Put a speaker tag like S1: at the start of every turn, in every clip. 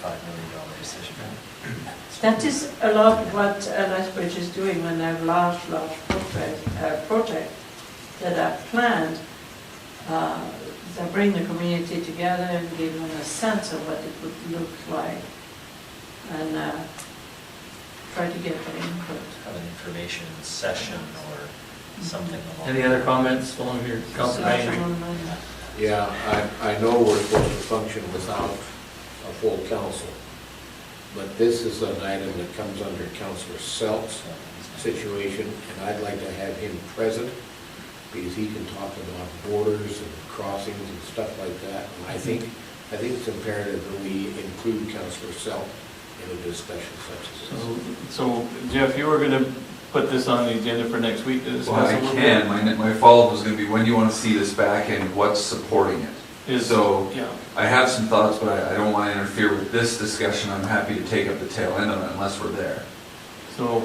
S1: five million dollar decision.
S2: That is a lot what uh, Lethbridge is doing when they have large, large projects, uh, projects that are planned. Uh, They bring the community together and give them a sense of what it would look like and uh, try to get their input.
S1: Have an information session or something along.
S3: Any other comments along here, Council Bain?
S4: Yeah, I, I know we're supposed to function without a full council, but this is an item that comes under Counselor Selk's situation, and I'd like to have him present, because he can talk about borders and crossings and stuff like that, and I think, I think it's imperative that we include Counselor Selk in a discussion such as this.
S3: So- So Jeff, you were going to put this on the agenda for next week to
S5: Well,
S3: discuss.
S5: I
S3: it with
S5: can,
S3: them.
S5: my, my follow-up was gonna be, when do you wanna see this back and what's supporting it?
S3: Is,
S5: So,
S3: yeah,
S5: I have some thoughts, but I, I don't wanna interfere with this discussion, I'm happy to take up the tail end of it unless we're there.
S3: so,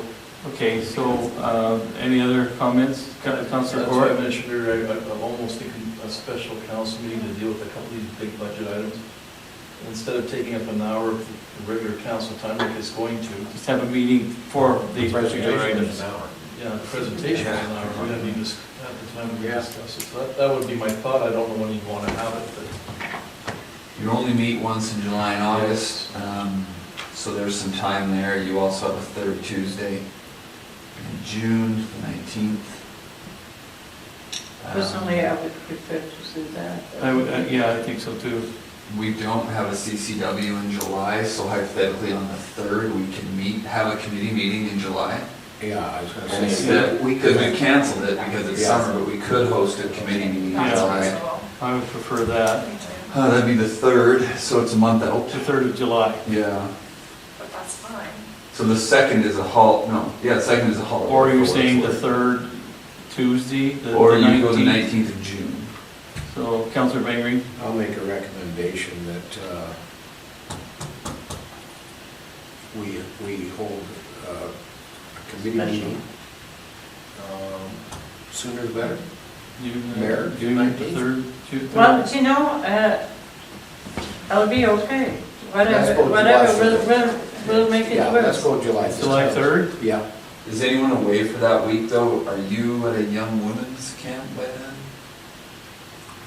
S3: okay, so uh, any other comments, Coun- Councilor
S6: That's why I
S3: Court?
S6: mentioned earlier, I- I'm almost thinking a special council meeting to deal with a couple of these big budget items. Instead of taking up an hour of the regular council time like it's going to,
S3: Just have a meeting for these particular
S4: Presentation
S3: items.
S4: is an hour.
S6: yeah, the presentation is an hour, we don't need to s- have the time to
S4: Yeah.
S6: discuss it. So that, that would be my thought, I don't know when you'd want to have it, but
S5: You only meet once in July and August, um, so there's some time there, you also have a third Tuesday in June, the nineteenth. Um,
S2: Personally, I would prefer to see that.
S3: Um, I would, uh, yeah, I think so too.
S5: We don't have a CCW in July, so hypothetically on the third, we can meet, have a committee meeting in July.
S4: Yeah, I was gonna say.
S5: Because we canceled it because it's
S4: Yeah.
S5: summer, but we could host a committee meeting in July.
S3: I would prefer that,
S5: Uh, that'd be the third, so it's a month out.
S3: the 3rd of July,
S5: Yeah,
S7: But that's fine.
S5: so the second is a hol, no, yeah, the second is a holiday.
S3: or you're
S5: for what
S3: saying the
S5: it's worth.
S3: 3rd Tuesday, the the
S5: Or you go the
S3: 19th?
S5: nineteenth of June.
S3: So Councilor Bain,
S4: I'll make a recommendation that uh, we, we hold uh, a committee
S2: Special.
S4: meeting um, sooner the better.
S3: June, uh,
S4: Mayor,
S3: June the
S4: 19th?
S3: 3rd, June 3rd?
S2: Well, you know, uh, I'll be okay,
S4: Let's
S2: whatever,
S4: go with
S2: whatever,
S4: July
S2: we'll, we'll, we'll make it
S4: Yeah, let's
S2: work.
S4: go July 3rd.
S3: July 3rd?
S4: Yeah,
S5: Is anyone away for that week though? Are you at a young women's camp by then?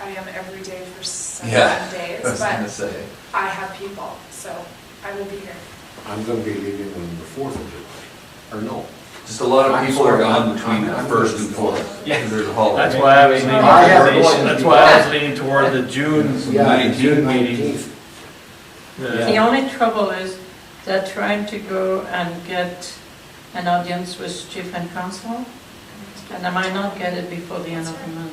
S7: I am every day for seven
S5: Yeah,
S7: days,
S5: I was gonna
S7: but
S5: say.
S7: I have people, so I will be here.
S4: I'm going to be leaving on the 4th of July, or no.
S5: Just a lot of
S4: I'm
S5: people are
S4: sorry,
S5: gone
S4: I'm-
S5: between the
S4: I'm-
S5: first and fourth.
S3: Yeah.
S5: Because there's a holiday.
S3: That's why I was leaning,
S4: Oh, yeah, we're going.
S3: that's why I was leaning toward the June
S5: So
S4: Yeah, June
S3: 19th meeting.
S4: 19th.
S2: The
S3: The-
S2: only trouble is they're trying to go and get an audience with chief and council, and I might not get it before the end of the month.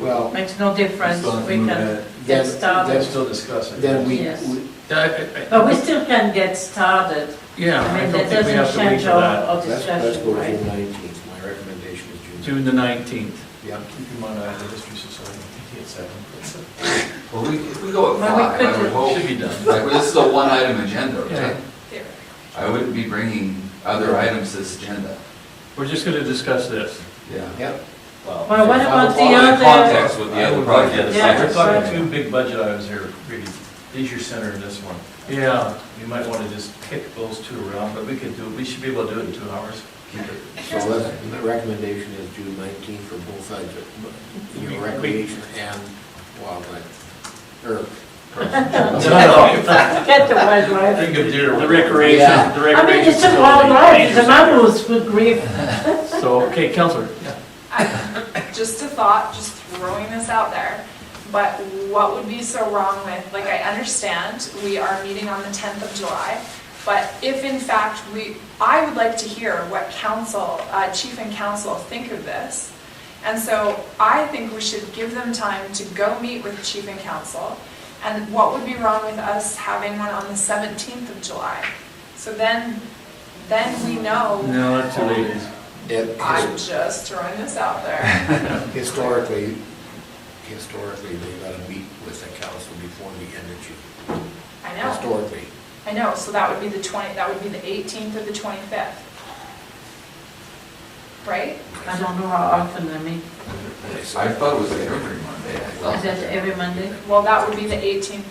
S4: Well,
S2: Makes no difference,
S5: Still have to
S2: we
S5: move
S2: can
S5: it.
S2: get
S4: then,
S6: we'll
S2: started,
S4: then-
S6: still discuss it.
S4: then we,
S2: Yes.
S4: we-
S2: but we still can get started.
S3: Yeah,
S2: I
S3: I
S2: mean,
S3: don't
S2: that
S3: think we have
S2: doesn't
S3: to wait
S2: change
S3: for
S2: our,
S3: that.
S2: our
S4: let's, let's go
S2: discussion,
S4: to June
S2: right?
S4: 19th. My recommendation is
S3: June
S4: June.
S3: the 19th.
S4: Yeah.
S6: Keep in mind, I have the history society, meeting at seven.
S5: Well, we, if we go at
S2: Well, we
S5: five, I
S2: could
S5: would
S2: do-
S5: hope.
S6: Should be done.
S5: Like, well, this is a one-item agenda, right?
S3: Yeah.
S7: Theoretically.
S5: I wouldn't be bringing other items to this agenda.
S3: We're just going to discuss this.
S5: Yeah.
S4: Yep.
S2: Well, what about the
S5: Well, in
S2: other,
S5: context with the
S6: I
S5: other
S6: would like that.
S5: projects.
S2: Yeah.
S6: We're talking two big budget items here, really, leisure center and this one.
S3: Yeah.
S6: You might want to just kick those two around, but we could do, we should be able to do it in two hours. Keep it.
S4: So let's- the recommendation is June nineteenth for both sides, of your recreation and wildlife, or
S2: get the wildlife.
S6: Think of deer.
S3: The recreation,
S4: Yeah.
S3: the
S2: I
S3: recreation.
S2: mean, it's a
S3: facility.
S2: wildlife, the mammals would grieve.
S3: So, okay, Counselor,
S7: I- Just a thought, just throwing this out there, but what would be so wrong with, like, I understand we are meeting on the tenth of July, but if in fact we, I would like to hear what council, uh, chief and council think of this. And so I think we should give them time to go meet with chief and council. And what would be wrong with us having one on the seventeenth of July? So then, then we know.
S3: no, that's too late.
S7: I'm
S4: it-
S7: just throwing this out there.
S4: historically, historically, they gotta meet with the council before the end of June.
S7: I know,
S4: Historically,
S7: I know, so that would be the 20, that would be the 18th or the 25th. Right?
S2: I don't know how often I meet.
S5: I thought it was every Monday, I thought.
S2: Is that every Monday?
S7: Well, that would be the 18th